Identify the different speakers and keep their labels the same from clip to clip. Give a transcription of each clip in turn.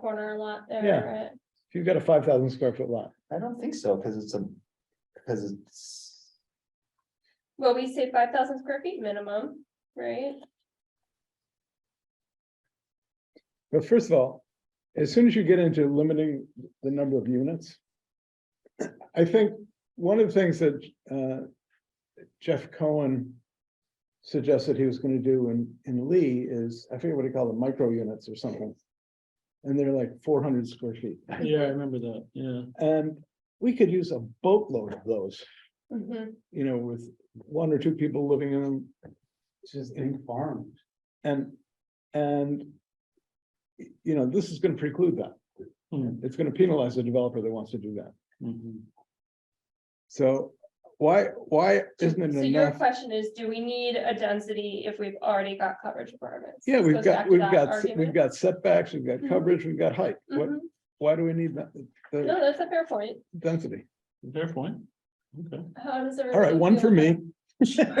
Speaker 1: corner lot
Speaker 2: Yeah.
Speaker 1: there,
Speaker 2: If you've got a five thousand square foot lot,
Speaker 3: I don't think so, because it's a, because it's,
Speaker 1: well, we say five thousand square feet minimum, right?
Speaker 2: but first of all, as soon as you get into limiting the number of units. I think one of the things that uh, Jeff Cohen. Suggested he was gonna do in, in Lee is, I forget what he called them, micro units or something. And they're like four hundred square feet,
Speaker 4: Yeah, I remember that, yeah.
Speaker 2: and we could use a boatload of those.
Speaker 1: Mhm.
Speaker 2: you know, with one or two people living in them. It's just in farms. And, and. y- You know, this is gonna preclude that.
Speaker 4: Hmm.
Speaker 2: It's gonna penalize the developer that wants to do that.
Speaker 4: Mhm.
Speaker 2: So why, why isn't it
Speaker 1: So your
Speaker 2: enough?
Speaker 1: question is, do we need a density if we've already got coverage requirements?
Speaker 2: Yeah,
Speaker 1: This
Speaker 2: we've
Speaker 1: goes back
Speaker 2: got,
Speaker 1: to
Speaker 2: we've
Speaker 1: that
Speaker 2: got, s-
Speaker 1: argument.
Speaker 2: we've got setbacks, we've got
Speaker 1: Mhm.
Speaker 2: coverage, we've got height. What,
Speaker 1: Mhm.
Speaker 2: why do we need that,
Speaker 1: No,
Speaker 2: the
Speaker 1: that's a fair point.
Speaker 2: density?
Speaker 4: Fair point. Okay.
Speaker 1: How does everyone?
Speaker 2: All right, one
Speaker 1: feel
Speaker 2: for
Speaker 1: about-
Speaker 2: me.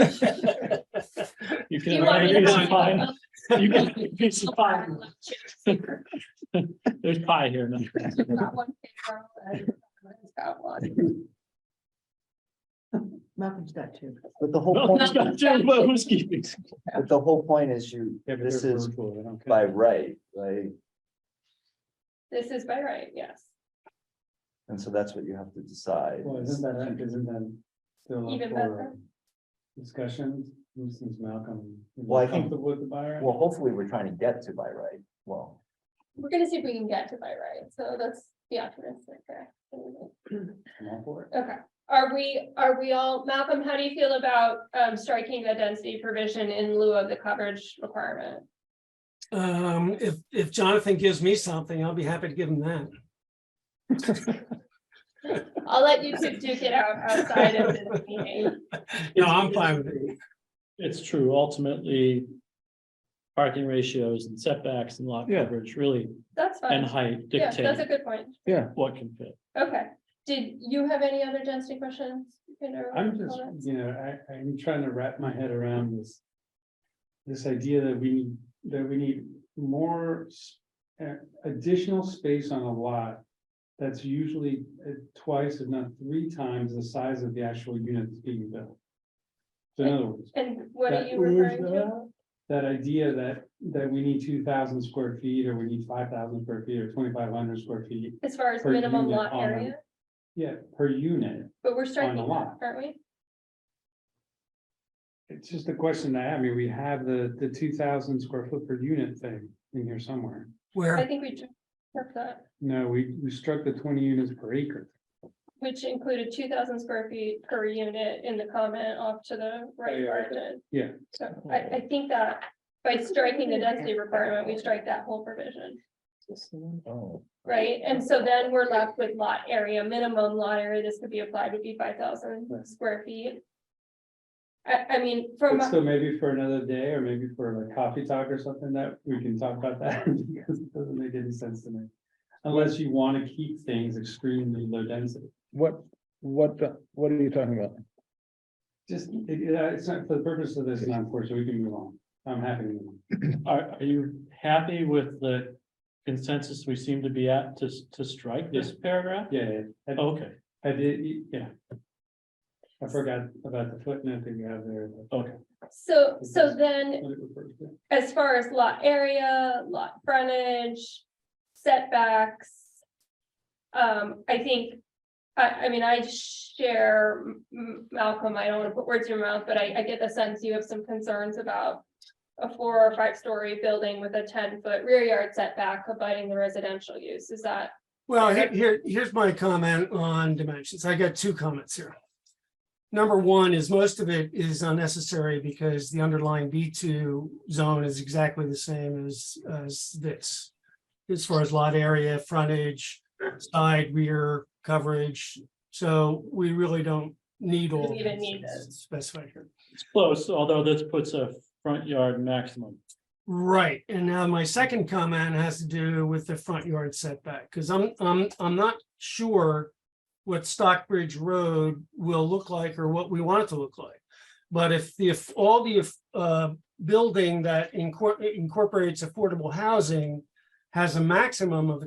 Speaker 4: You
Speaker 1: Do you want me to
Speaker 4: There's
Speaker 1: go
Speaker 4: pie.
Speaker 1: up-
Speaker 4: You can- piece of
Speaker 1: up-
Speaker 4: pie.
Speaker 1: up- up-
Speaker 4: There's pie here. no?
Speaker 1: You've got one paper and I've got one.
Speaker 5: Malcolm's got two.
Speaker 3: but the whole
Speaker 4: No,
Speaker 3: point,
Speaker 4: it's got two, but who's keeping?
Speaker 3: but the whole point is you, this is by right, right?
Speaker 1: This is by right, yes.
Speaker 3: And so that's what you have to decide.
Speaker 6: Well, isn't that, isn't that still up
Speaker 1: Even
Speaker 6: for
Speaker 1: better.
Speaker 6: discussion, since Malcolm? is
Speaker 3: Well, I think-
Speaker 6: comfortable With the buyer?
Speaker 3: Well, hopefully, we're trying to get to by right, well,
Speaker 1: We're gonna see if we can get to by right, so that's the optimistic there.
Speaker 6: I'm all for it.
Speaker 1: Okay, are we, are we all, Malcolm, how do you feel about um striking the density provision in lieu of the coverage requirement?
Speaker 7: Um, if, if Jonathan gives me something, I'll be happy to give him that.
Speaker 1: I'll let you two duke it out outside of this meeting.
Speaker 7: No, I'm fine with it.
Speaker 4: It's true, ultimately. Parking ratios and setbacks and lot
Speaker 2: Yeah.
Speaker 4: coverage really
Speaker 1: That's
Speaker 4: and
Speaker 1: fine.
Speaker 4: height
Speaker 1: Yeah, that's a
Speaker 4: dictate
Speaker 1: good point.
Speaker 4: what can fit.
Speaker 1: Okay, did you have any other density questions?
Speaker 6: I'm just, you know, I, I'm trying to wrap my head around this. This idea that we, need that we need more s- uh, additional space on a lot. That's usually uh, twice, if not three times the size of the actual unit that's being built. So in other words,
Speaker 1: And what are
Speaker 6: that- uh,
Speaker 1: you referring to?
Speaker 6: that idea that, that we need two thousand square feet, or we need five thousand square feet, or twenty-five hundred square feet.
Speaker 1: As far as
Speaker 6: per
Speaker 1: minimum
Speaker 6: unit
Speaker 1: lot
Speaker 6: on-
Speaker 1: area,
Speaker 6: Yeah, per unit,
Speaker 1: but we're striking
Speaker 6: a
Speaker 1: that,
Speaker 6: lot.
Speaker 1: aren't we?
Speaker 6: it's just a question that, I mean, we have the, the two thousand square foot per unit thing in here somewhere.
Speaker 1: I
Speaker 7: Where,
Speaker 1: think we took took that,
Speaker 6: No, we, we struck the twenty units per acre.
Speaker 1: which included two thousand square feet per unit in the comment off to the right.
Speaker 6: Yeah,
Speaker 1: where it
Speaker 6: yeah.
Speaker 1: is.
Speaker 6: Yeah.
Speaker 1: So I, I think that by striking the density requirement, we strike that whole provision,
Speaker 3: oh,
Speaker 1: right? And so then we're left with lot area, minimum lot area, this could be applied would be five thousand
Speaker 6: Right.
Speaker 1: square feet. I, I mean, from,
Speaker 6: But
Speaker 1: a-
Speaker 6: so maybe for another day, or maybe for like coffee talk or something, that we can talk about that, because it doesn't make any sense to me. Unless you want to keep things extremely low density.
Speaker 2: What, what, the- what are you talking about?
Speaker 6: Just, it, it, uh, it's not, for the purpose of this, it's not for, so we can move on. I'm happy to move on.
Speaker 4: Are, are you happy with the consensus we seem to be at to, to strike this paragraph?
Speaker 6: Yeah, yeah, I-
Speaker 4: Okay,
Speaker 6: I did, y- yeah. I forgot about the footnote that you have there.
Speaker 4: okay.
Speaker 1: so, so
Speaker 6: Mhm.
Speaker 1: then
Speaker 6: What it refers to.
Speaker 1: as far as lot area, lot frontage, setbacks. Um, I think, I, I mean, I share, M- M- Malcolm, I don't wanna put words in your mouth, but I, I get the sense you have some concerns about. A four or five story building with a ten foot rear yard setback abiding the residential use, is that,
Speaker 7: well, he- here, here's my comment on dimensions. I got two comments here. Number one is most of it is unnecessary because the underlying B two zone is exactly the same as, as this. As far as lot area, frontage, side, rear, coverage, so we really don't need all.
Speaker 1: We don't
Speaker 7: that
Speaker 1: need those.
Speaker 7: Specified here.
Speaker 4: It's close, although this puts a front yard maximum.
Speaker 7: Right, and now my second comment has to do with the front yard setback, because I'm, I'm, I'm not sure what Stockbridge Road will look like or what we want it to look like. But if, if all the, uh, building that incor- incorporates affordable housing has a maximum of